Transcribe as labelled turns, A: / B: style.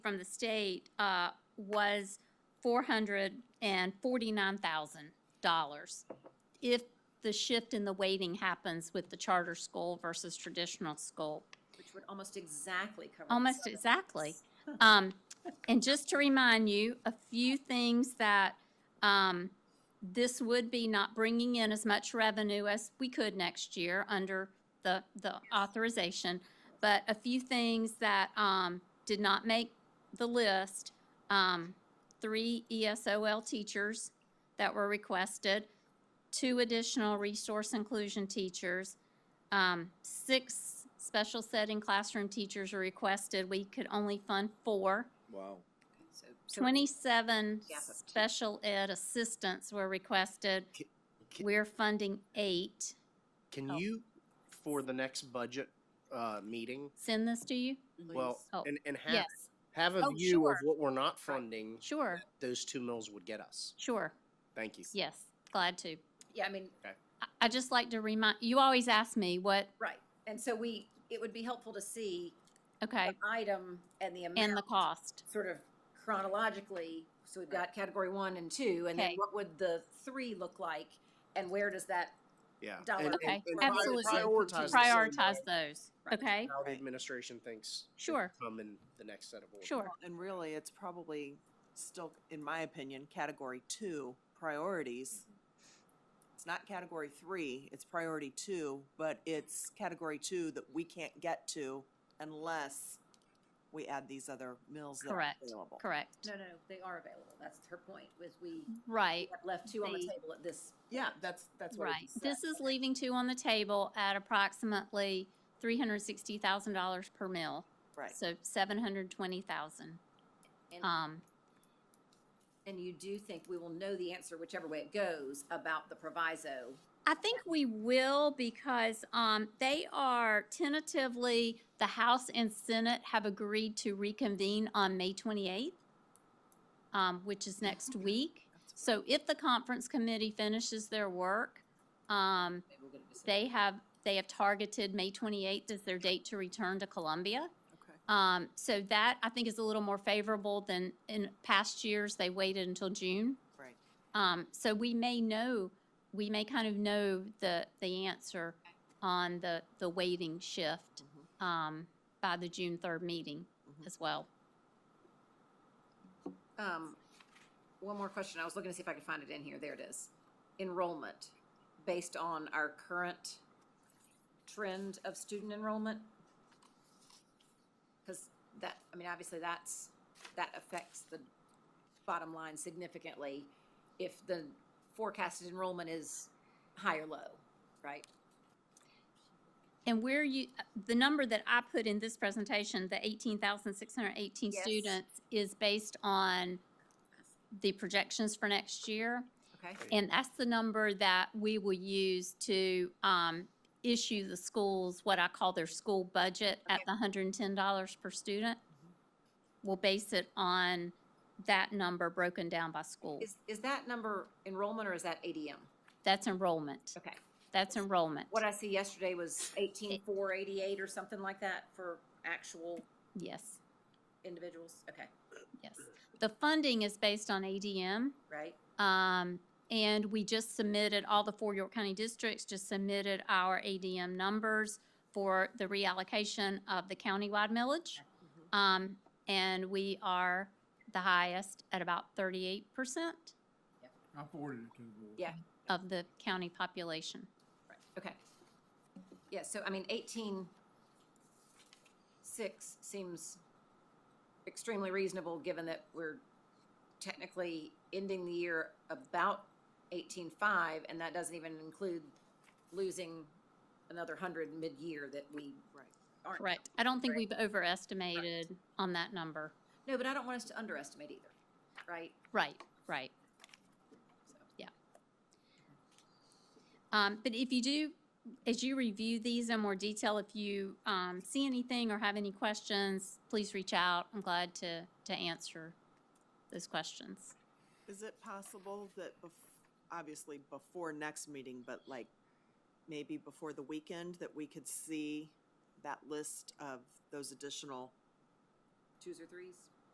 A: from the state uh, was four hundred and forty-nine thousand dollars. If the shift in the weighting happens with the charter school versus traditional school,
B: Which would almost exactly cover. the
A: almost
B: seven.
A: exactly. Um, and just to remind you, a few things that, um, this would be not bringing in as much revenue as we could next year under the, the authorization. But a few things that, um, did not make the list, um, three E ESOL teachers that were requested, two additional resource inclusion teachers, um, six special setting classroom teachers are requested. We could only fund four.
C: Wow.
B: So- so-
A: Twenty-seven
B: Gap of two.
A: special ed assistants were requested.
D: Ki- ki-
A: We're funding eight.
D: Can
A: Oh.
D: you, for the next budget uh, meeting,
A: Send this to you?
D: well,
B: Louise.
A: Oh,
D: and, and have,
A: Yes,
D: have a
A: Oh,
D: view of
A: sure.
D: what we're not funding,
A: sure,
D: those two mills would get us.
A: sure.
D: Thank you.
A: Yes, glad to.
B: Yeah, I mean,
A: I, I just like to remind, you always ask me what,
B: right. And so we, it would be helpful to see
A: okay,
B: the item and the
A: and the
B: amount
A: cost.
B: sort of chronologically. So we've got category one and two, and then
A: Okay.
B: what would the three look like? And where does that,
D: Yeah.
B: Dollar.
D: And- and-
A: Okay,
D: and pri-
A: absolutely.
D: Prioritize. the same
A: Prioritize
D: way
A: those,
B: Right.
A: okay?
D: How the administration thinks. it
A: Sure.
D: should Come in the next set of orders.
A: Sure,
E: And really, it's probably still, in my opinion, category two priorities. It's not category three, it's priority two, but it's category two that we can't get to unless we add these other mills that are
A: Correct,
E: available.
A: correct.
B: no, no, they are available. That's her point, was we
A: Mm-hmm. Right,
B: have left two on the
A: The-
B: table at this.
E: Yeah, that's, that's
A: right. This is leaving two on the table at approximately three hundred sixty thousand dollars per mill.
E: Right.
A: So seven hundred twenty thousand.
B: And-
A: Um,
B: And you do think we will know the answer whichever way it goes about the proviso?
A: I think we will because, um, they are tentatively, the House and Senate have agreed to reconvene on May twenty-eighth, um, which is next week. So if the conference committee finishes their work, um,
B: Maybe we'll get a decision.
A: they have, they have targeted May twenty-eighth as their date to return to Columbia.
E: Okay.
A: Um, so that I think is a little more favorable than in past years, they waited until June.
E: Right.
A: Um, so we may know, we may kind of know the, the answer on the, the weighting shift,
E: Mhm.
A: um, by the June third meeting
E: Mhm.
A: as well.
B: Um, one more question. I was looking to see if I could find it in here. There it is. Enrollment, based on our current trend of student enrollment? Because that, I mean, obviously that's, that affects the bottom line significantly if the forecasted enrollment is high or low, right?
A: And where you, the number that I put in this presentation, the eighteen thousand six hundred eighteen
B: Yes.
A: students is based on the projections for next year.
B: Okay?
A: And that's the number that we will use to um, issue the schools, what I call their school budget at
B: Okay.
A: the hundred and ten dollars per student. We'll base it on that number broken down by school.
B: Is, is that number enrollment or is that ADM?
A: That's enrollment.
B: Okay.
A: That's enrollment.
B: What I see yesterday was eighteen four eighty-eight or something like that for actual
A: Yes,
B: individuals, okay,
A: yes. The funding is based on ADM.
B: right?
A: Um, and we just submitted, all the four York County districts just submitted our ADM numbers for the reallocation of the countywide millage. Um, and we are the highest at about thirty-eight percent
F: I forwarded it to the board.
B: Yeah.
A: of the county population.
B: Right. Okay. Yeah, so I mean, eighteen six seems extremely reasonable, given that we're technically ending the year about eighteen five, and that doesn't even include losing another hundred mid-year that we
E: Right.
B: aren't.
A: Correct. I don't think
B: Correct.
A: we've overestimated on that number.
B: No, but I don't want us to underestimate either, right?
A: Right, right.
B: So-
A: Um, but if you do, as you review these in more detail, if you, um, see anything or have any questions, please reach out. I'm glad to, to answer those questions.
E: Is it possible that, bef- obviously before next meeting, but like maybe before the weekend, that we could see that list of those additional
B: Twos or threes?